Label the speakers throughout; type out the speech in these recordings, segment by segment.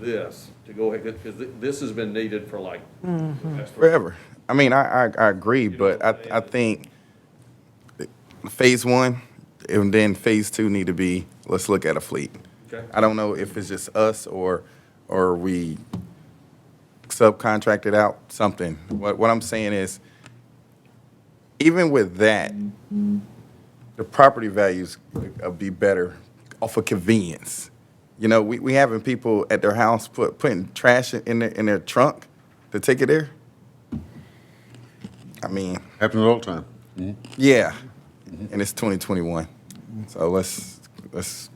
Speaker 1: this to go ahead, because this has been needed for like.
Speaker 2: Mm-hmm.
Speaker 3: Forever. I mean, I, I, I agree,
Speaker 1: know
Speaker 3: but
Speaker 1: what I'm
Speaker 3: I, I think phase one and then phase two need to be, let's look at a fleet.
Speaker 1: Okay.
Speaker 3: I don't know if it's just us or, or we subcontracted out something. What, what I'm saying is, even with that, the property values would be better off of convenience. You know, we, we having people at their house put, putting trash in their, in their trunk to take it there. I mean,
Speaker 4: Happens all the time.
Speaker 3: yeah, and it's 2021, so let's, let's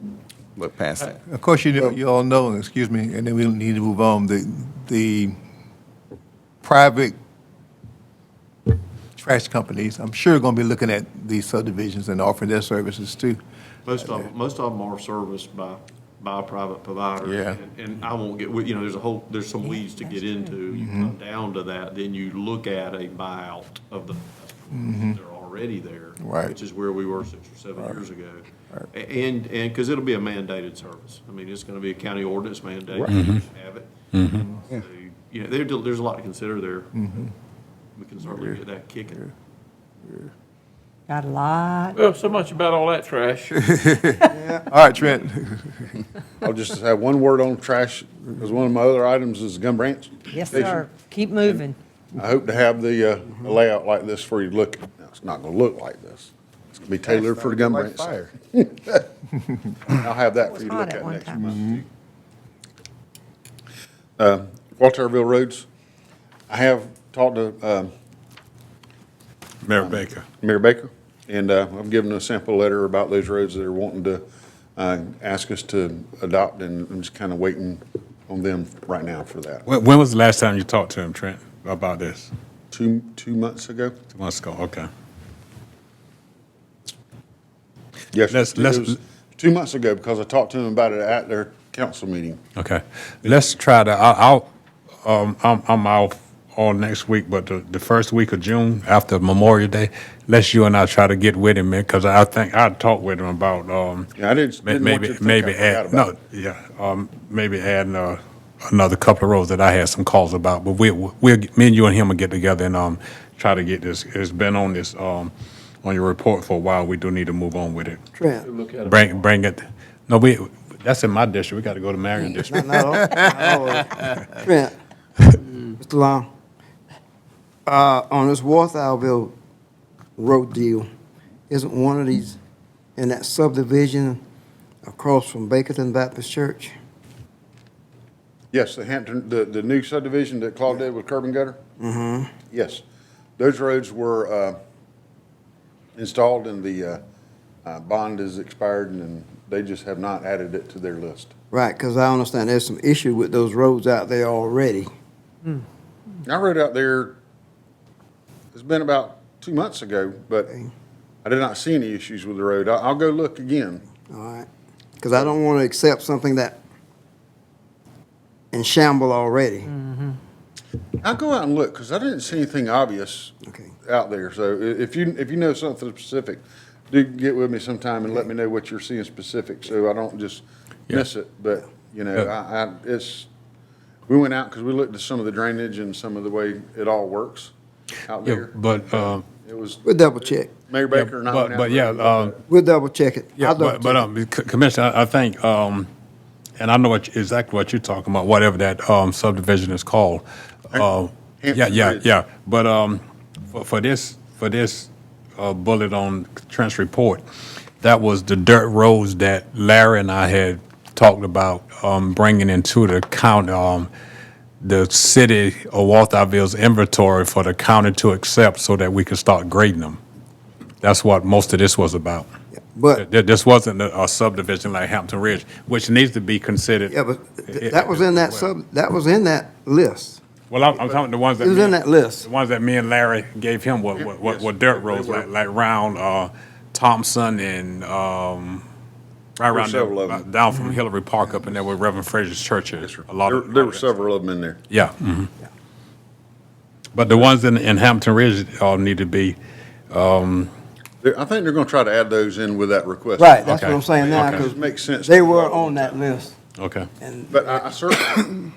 Speaker 3: look past that.
Speaker 2: Of course, you, know- you all know, excuse me, and then we need to move on, the, the private trash companies, I'm sure going to be looking at these subdivisions and offering their services too.
Speaker 1: Most of, most of them are serviced by, by a private provider.
Speaker 2: Yeah.
Speaker 1: And- And I won't get, you know, there's a whole, there's some weeds to get into. You
Speaker 2: Mm-hmm.
Speaker 1: come down to that, then you look at a buyout of the, they're already there.
Speaker 2: Mm-hmm. Right.
Speaker 1: Which is where we were six or seven years ago. A- And, and, because it'll be a mandated service. I mean, it's going to be a county ordinance mandate. You
Speaker 2: Mm-hmm.
Speaker 1: Have it. So, You know, there, there's a lot to consider there.
Speaker 2: Mm-hmm.
Speaker 1: We can certainly get that kicking.
Speaker 5: Got a lot.
Speaker 6: Well, so much about all that trash.
Speaker 2: All right, Trent,
Speaker 4: I'll just have one word on trash, because one of my other items is Gum Branch.
Speaker 5: Yes,
Speaker 4: Station.
Speaker 5: sir. Keep moving.
Speaker 4: I hope to have the uh, a layout like this for you to look. at. Now, It's not going to look like this. It's going to be tailored for the Gum Branch. I'll have that for you to
Speaker 5: Hot
Speaker 4: look
Speaker 5: at
Speaker 4: at
Speaker 5: one
Speaker 4: next
Speaker 5: time.
Speaker 4: month. Uh, Walterville Roads, I have talked to um,
Speaker 7: Mayor Baker.
Speaker 4: Mayor Baker, and uh, I've given a sample letter about those roads that are wanting to uh, ask us to adopt, and I'm just kind of waiting on them right now for that.
Speaker 7: When, when was the last time you talked to him, Trent, about this?
Speaker 4: Two, two months ago?
Speaker 7: Two months ago, okay.
Speaker 4: Yes,
Speaker 7: Let's-
Speaker 4: it
Speaker 7: let's-
Speaker 4: was two months ago, because I talked to them about it at their council meeting.
Speaker 7: Okay. Let's try to, I, I'll, um, I'm, I'm off all next week, but the, the first week of June after Memorial Day, let's you and I try to get with him, man, because I think I talked with him about, um,
Speaker 4: Yeah, I didn't,
Speaker 7: may-
Speaker 4: didn't want you
Speaker 7: maybe,
Speaker 4: to think
Speaker 7: maybe
Speaker 4: I forgot
Speaker 7: add,
Speaker 4: about
Speaker 7: no, yeah, um, maybe adding, uh, another couple of rows that I had some calls about, but we, we, me and you and him will get together and, um, try to get this, it's been on this, um, on your report for a while. We do need to move on with it.
Speaker 8: Trent.
Speaker 7: Bring, bring it, no, we, that's in my district. We got to go to Marion district.
Speaker 8: No, no, no. Trent. Mr. Mm. Long. Uh, on this Walthallville road deal, isn't one of these in that subdivision across from Bakerton Baptist Church?
Speaker 4: Yes, the Hampton, the, the new subdivision that Claude did with curb and gutter? Mm-hmm. Yes. Those roads were, uh, installed and the, uh, uh, bond is expired and they just have not added it to their list.
Speaker 8: Right, because I understand there's some issue with those roads out there already.
Speaker 4: I rode out there, it's been about two months ago, but I did not see any issues with the road. I, I'll go look again.
Speaker 8: All right, because I don't want to accept something that in shamble already.
Speaker 7: Mm.
Speaker 4: I'll go out and look, because I didn't see anything obvious
Speaker 8: Okay.
Speaker 4: out there. So i- if you, if you know something specific, do get with me sometime and let me know what you're seeing specific, so I don't just miss it. But, you know, I, I, it's, we went out because we looked at some of the drainage and some of the way it all works out
Speaker 7: Yeah,
Speaker 4: there.
Speaker 7: but, um,
Speaker 4: It was
Speaker 8: We'll double check.
Speaker 4: Mayor
Speaker 7: yeah,
Speaker 4: Baker and I went
Speaker 7: but,
Speaker 4: out.
Speaker 7: but
Speaker 4: there
Speaker 7: yeah,
Speaker 4: and looked.
Speaker 7: um,
Speaker 8: We'll double check it.
Speaker 7: yeah,
Speaker 8: I'll double
Speaker 7: but, but,
Speaker 8: check it.
Speaker 7: um, C- Commissioner, I I think, um, and I know what, exactly what you're talking about, whatever that, um, subdivision is called. Uh, yeah,
Speaker 4: Hampton
Speaker 7: yeah,
Speaker 4: Bridge.
Speaker 7: yeah, but, um, for, for this, for this, uh, bullet on Trent's report, that was the dirt roads that Larry and I had talked about, um, bringing into the county, um, the city of Walthallville's inventory for the county to accept so that we could start grading them. That's what most of this was about.
Speaker 8: But,
Speaker 7: Th- This wasn't a a subdivision like Hampton Ridge, which needs to be considered.
Speaker 8: yeah, but th- that was in that sub, that was in that list.
Speaker 7: Well, I'm, I'm talking the ones that.
Speaker 8: It was
Speaker 7: me-
Speaker 8: in that list.
Speaker 7: The ones that me and Larry gave him were, were- were, were dirt roads, like, like round, uh, Thompson and, um, right around
Speaker 4: several of
Speaker 7: there,
Speaker 4: them.
Speaker 7: down
Speaker 8: Mm-hmm.
Speaker 7: from Hillary Park up in there where Reverend Fraser's church is. A lot
Speaker 4: There,
Speaker 7: of.
Speaker 4: there were several of them in there.
Speaker 7: Yeah. mhm. But the ones in, in Hampton Ridge all need to be,
Speaker 4: There- I think they're gonna try to add those in with that request.
Speaker 8: Right, that's what
Speaker 7: Okay.
Speaker 8: I'm saying now,
Speaker 7: Okay.
Speaker 4: It
Speaker 8: because
Speaker 4: just makes sense.
Speaker 8: they were on that list.
Speaker 7: Okay.
Speaker 8: And
Speaker 4: But I I certainly,